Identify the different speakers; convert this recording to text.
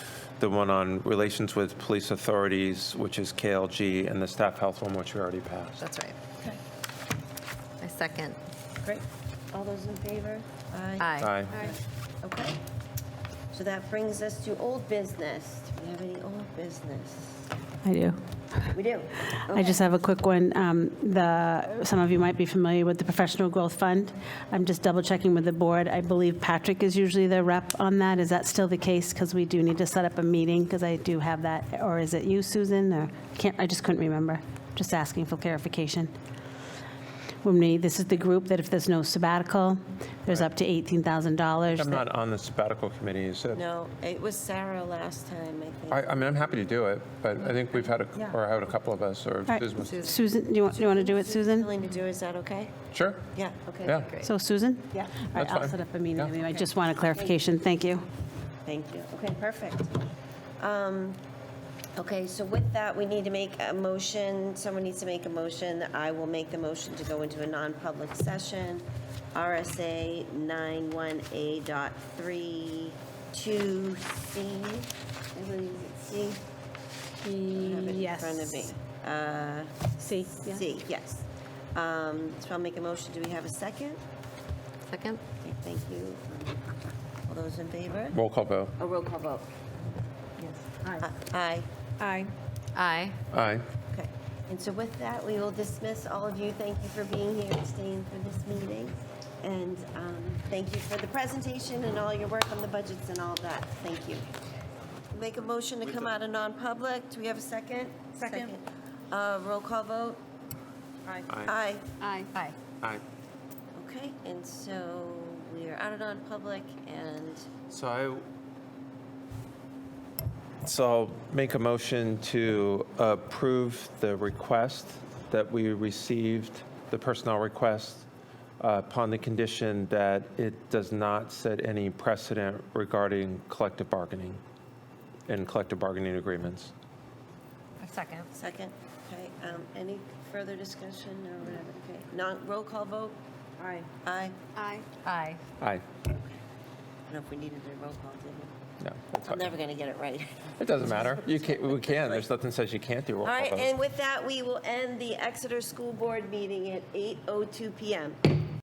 Speaker 1: the one on relations with police authorities, which is KLG, and the staff health one, which we already passed.
Speaker 2: That's right.
Speaker 3: Okay,
Speaker 2: I second.
Speaker 3: great. All those in favor?
Speaker 2: Aye.
Speaker 1: Aye.
Speaker 3: Okay. So that brings us to old business. Do we have any old business?
Speaker 4: I do.
Speaker 3: We do.
Speaker 4: I just have a quick one. Um, The, some of you might be familiar with the Professional Growth Fund. I'm just double checking with the board. I believe Patrick is usually the rep on that. Is that still the case? Because we do need to set up a meeting, because I do have that. Or is it you, Susan? Or can't, I just couldn't remember. Just asking for clarification. When we, this is the group that if there's no sabbatical, there's up to $18,000.
Speaker 1: I'm
Speaker 4: that-
Speaker 1: not on the sabbatical committee, is it?
Speaker 3: No, it was Sarah last time, I think.
Speaker 1: I, I mean, I'm happy to do it, but I think we've had, a
Speaker 3: Yeah.
Speaker 1: or had a couple of us, or
Speaker 4: All right.
Speaker 1: Susan was-
Speaker 4: Susan, do you want, you want to do it, Susan?
Speaker 3: Willing to do, is that okay?
Speaker 1: Sure,
Speaker 3: Yeah, okay.
Speaker 1: yeah.
Speaker 4: So Susan?
Speaker 3: Yeah.
Speaker 4: All right,
Speaker 1: That's
Speaker 4: I'll
Speaker 1: fine.
Speaker 4: set up a meeting.
Speaker 1: Yeah.
Speaker 4: anyway. I just want a clarification. Thank you.
Speaker 3: Thank you. Okay, perfect. Um, Okay, so with that, we need to make a motion, someone needs to make a motion. I will make the motion to go into a non-public session, RSA 91A.32C. I believe it's C. I have it in front of me. Uh,
Speaker 4: See, yeah.
Speaker 3: C, yes. Um, So I'll make a motion. Do we have a second?
Speaker 2: Second?
Speaker 3: Okay, Thank you. All those in favor?
Speaker 1: Roll call vote.
Speaker 3: A roll call vote. Yes. Uh, Aye. Aye.
Speaker 2: Aye.
Speaker 1: Aye.
Speaker 3: Okay. And so with that, we will dismiss all of you. Thank you for being here and staying for this meeting. And um, thank you for the presentation and all your work on the budgets and all that. Thank you. Make a motion to come out of non-public. Do we have a second? Second. Uh, Roll call vote? Aye. Aye.
Speaker 2: Aye. Aye.
Speaker 1: Aye.
Speaker 3: Okay, and so we are out of non-public and
Speaker 1: So I, so I'll make a motion to approve the request that we received, the personnel request, uh, upon the condition that it does not set any precedent regarding collective bargaining and collective bargaining agreements.
Speaker 2: Second.
Speaker 3: Second, okay, um, any further discussion or whatever, okay, non, roll call vote? Aye. Aye,
Speaker 2: Aye. Aye.
Speaker 1: Aye.
Speaker 3: I don't know if we needed a roll call, did we?
Speaker 1: No, that's fine.
Speaker 3: I'm never gonna get it right.
Speaker 1: It doesn't matter. You can, we can. There's nothing says you can't do roll
Speaker 3: All
Speaker 1: call
Speaker 3: right,
Speaker 1: votes.
Speaker 3: oh and with that, we will end the Exeter School Board meeting at 8:02 PM.